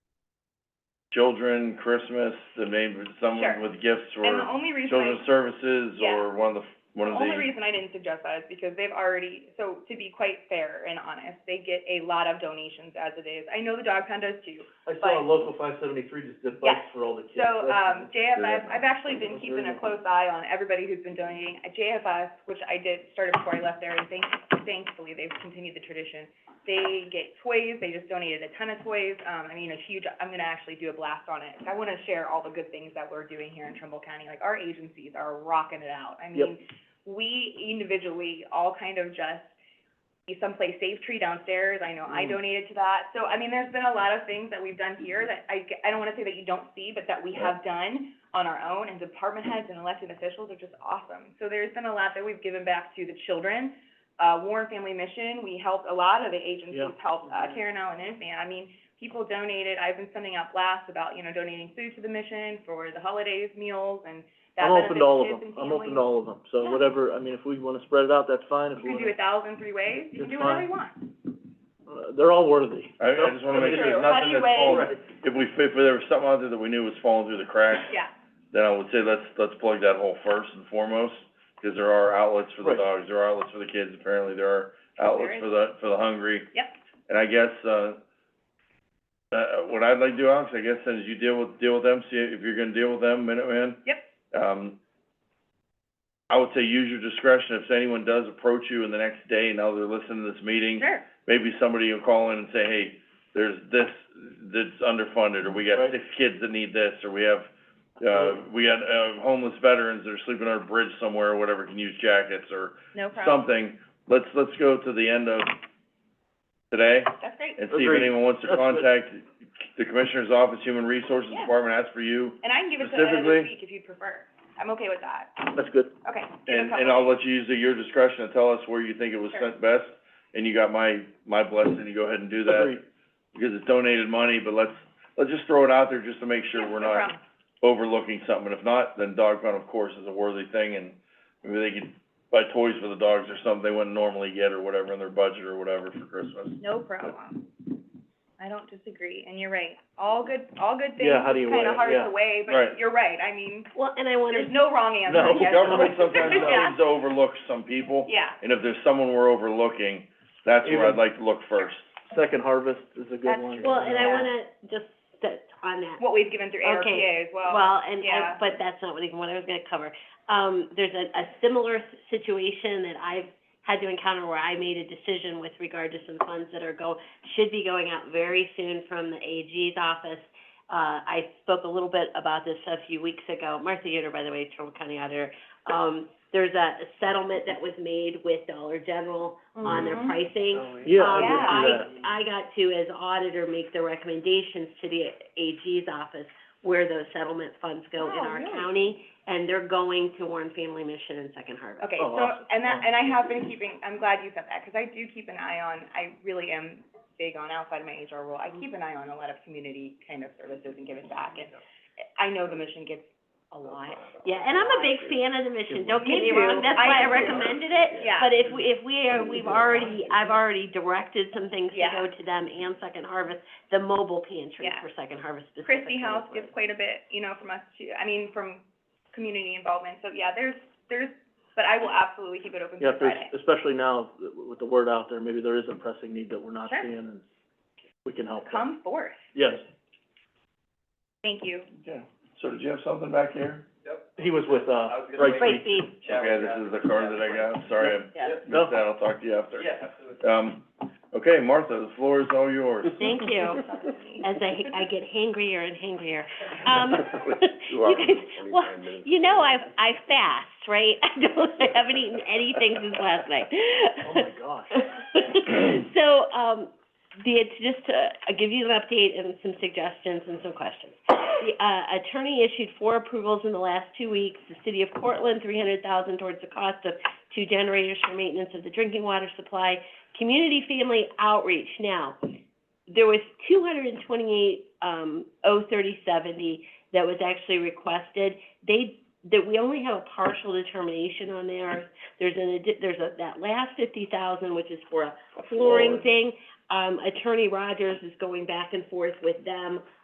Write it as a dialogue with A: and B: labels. A: children, Christmas, the name,
B: Sure.
A: someone with gifts
B: And the
A: or
B: only reason I,
A: children's services
B: Yeah.
A: or one of the, one of the.
B: only reason I didn't suggest that is because they've already, so to be quite fair and honest, they get a lot of donations as it is. I know the dog pound does too.
C: I
B: But-
C: saw a local five seventy-three just did bikes for all the kids.
B: So, um,
C: That's-
B: JFS, I've actually been keeping a close eye on everybody who's been donating. Uh, JFS, which I did, started before I left there, and thank, thankfully, they've continued the tradition. They get toys, they just donated a ton of toys, um, I mean, a huge, I'm gonna actually do a blast on it. I wanna share all the good things that we're doing here in Trumbull County, like, our agencies are rocking it out. I
C: Yep.
B: mean, we individually all kind of just be someplace safe tree downstairs, I know I
C: Mm.
B: donated to that. So, I mean, there's been a lot of things that we've done here that I, g- I don't wanna say that you don't see, but that we have done on our own, and department heads and elected officials are just awesome. So there's been a lot that we've given back to the children. Uh, Warren Family Mission, we helped, a lot of the agencies
C: Yeah.
B: helped, uh, Karen Allen Infan. I mean, people donated, I've been sending out blasts about, you know, donating food to the mission for the holidays, meals, and that
C: I'm open to all of
B: benefits kids
C: them,
B: and families.
C: I'm open to all of them, so
B: Yeah.
C: whatever, I mean, if we wanna spread it out, that's fine, if
B: You
C: we
B: can do a
C: wanna,
B: thousand three ways, you can
C: It's
B: do whatever
C: fine.
B: you want.
C: uh, they're all worthy.
A: I, I just wanna make sure
B: True.
A: there's
B: How
A: nothing
B: do you
A: that's falling,
C: weigh-
A: if we, if there was something out there that we knew was falling through the cracks,
B: Yeah,
A: then I would say let's, let's plug that hole first and foremost, 'cause there are outlets for the
C: Right.
A: dogs, there are outlets for the kids, apparently there are outlets
B: is.
A: for the, for the hungry.
B: Yep.
A: And I guess, uh, uh, what I'd like to do, Alex, I guess, is you deal with, deal with them, see if you're gonna deal with them, Minuteman.
B: Yep.
A: Um, I would say use your discretion, if anyone does approach you in the next day, now they're listening to this meeting,
B: sure,
A: maybe somebody will call in and say, hey, there's this that's underfunded, or we got
C: Right.
A: six kids that need this, or we have, uh, we got, uh, homeless veterans that are sleeping on a bridge somewhere, or whatever, can use jackets or
B: no problem.
A: something. Let's, let's go to the end of today
B: That's great.
A: and see if
C: Agreed.
A: anyone wants to
C: That's good.
A: contact the Commissioner's Office, Human Resources
B: Yeah.
A: Department, ask for you,
B: And I can give it to the end of
A: Specifically-
B: this week if you'd prefer. I'm okay with that.
C: That's good,
B: Okay, give it a
A: and,
B: couple.
A: and I'll let you use your discretion to tell us where you think it was
B: Sure.
A: sent best, and you got my, my blessing to go ahead and do that.
C: agreed,
A: because it's donated money, but let's, let's just throw it out there just to make sure
B: Yeah,
A: we're
B: no
A: not
B: problem.
A: overlooking something. If not, then dog pound, of course, is a worthy thing, and maybe they could buy toys for the dogs or something they wouldn't normally get or whatever in their budget or whatever for Christmas.
B: No problem. I don't disagree, and you're right. All good, all good things.
C: Yeah, how do you weigh
B: Kinda
C: it?
B: hard
C: Yeah.
B: to weigh,
A: Right.
B: but you're right. I mean,
D: Well, and I wanna,
B: there's no wrong answer.
A: No,
B: yes.
A: government sometimes
B: Yeah.
A: seems to overlook some people,
B: Yeah,
A: and if there's someone we're overlooking, that's where I'd
C: Even-
A: like to look first.
C: second harvest is a good
B: That's
C: one.
B: true.
D: well, and I
B: Yeah.
D: wanna just sit on that.
B: what we've given through
D: Okay.
B: ARPA as well.
D: Well, and,
B: yeah.
D: and, but that's not what I, what I was gonna cover. Um, there's a, a similar s- situation that I've had to encounter where I made a decision with regard to some funds that are go, should be going out very soon from the AG's office. Uh, I spoke a little bit about this a few weeks ago. Martha Yoder, by the way, Trumbull County Auditor. Um, there's a settlement that was made with Dollar General on their
B: Mhm.
D: pricing.
C: Yeah, I
D: Um,
B: Yeah.
C: did see that.
D: I, I got to, as auditor, make the recommendations to the AG's office where those settlement funds go in
B: Wow,
D: our
B: really?
D: county, and they're going to Warren Family Mission and Second Harvest.
B: Okay,
C: Oh,
B: so,
C: awesome.
B: and that, and I have been keeping, I'm glad you said that, because I do keep an eye on, I really am big on outside of my HR role, I keep an eye on a lot of community kind of services and giving back, and I know the mission gets a lot.
D: Yeah, and I'm a big fan of the mission, don't get
B: Me
D: me
B: too.
D: wrong, that's why
B: I am
D: I
B: too.
D: recommended it.
B: Yeah.
D: But if we, if we are, we've already, I've already directed some things to
B: Yeah.
D: go to them and Second Harvest, the mobile pantry
B: Yeah.
D: for Second Harvest specifically.
B: Christie House
D: was-
B: gives quite a bit, you know, from us too, I mean, from community involvement, so yeah, there's, there's, but I will absolutely keep it open
C: Yeah,
B: through
C: if there's,
B: Friday.
C: especially now, th- with the word out there, maybe there is a pressing need that we're not
B: Sure.
C: seeing, and we can help. there.
B: Come forth,
C: Yes,
B: thank you.
A: Yeah, so did you have something back here?
C: he was with,
E: I
C: uh,
E: was gonna
C: Bright
E: make-
D: Great
C: Creek.
D: feed.
A: Okay, this is the card that I got, sorry, I
E: Yep.
C: No.
A: missed that, I'll talk to you after.
E: Yeah, absolutely.
A: Um, okay, Martha, the floor is all yours.
D: Thank you. As I, I get hangrier and hangrier. Um,
A: Two hours
D: you guys,
A: and
D: well,
A: 29 minutes.
D: you know, I, I fast, right? I don't, I haven't eaten anything since last night.
C: oh my gosh.
D: So, um, the, it's just to, uh, give you an update and some suggestions and some questions. The, uh, attorney issued four approvals in the last two weeks. The city of Portland, three hundred thousand towards the cost of two generators for maintenance of the drinking water supply. Community family outreach. Now, there was two hundred and twenty-eight, um, oh thirty seventy that was actually requested. They, that we only have a partial determination on there. There's an, addi- there's a, that last fifty thousand, which is for a
A: Flooring.
D: flooring thing. Um, Attorney Rogers is going back and forth with them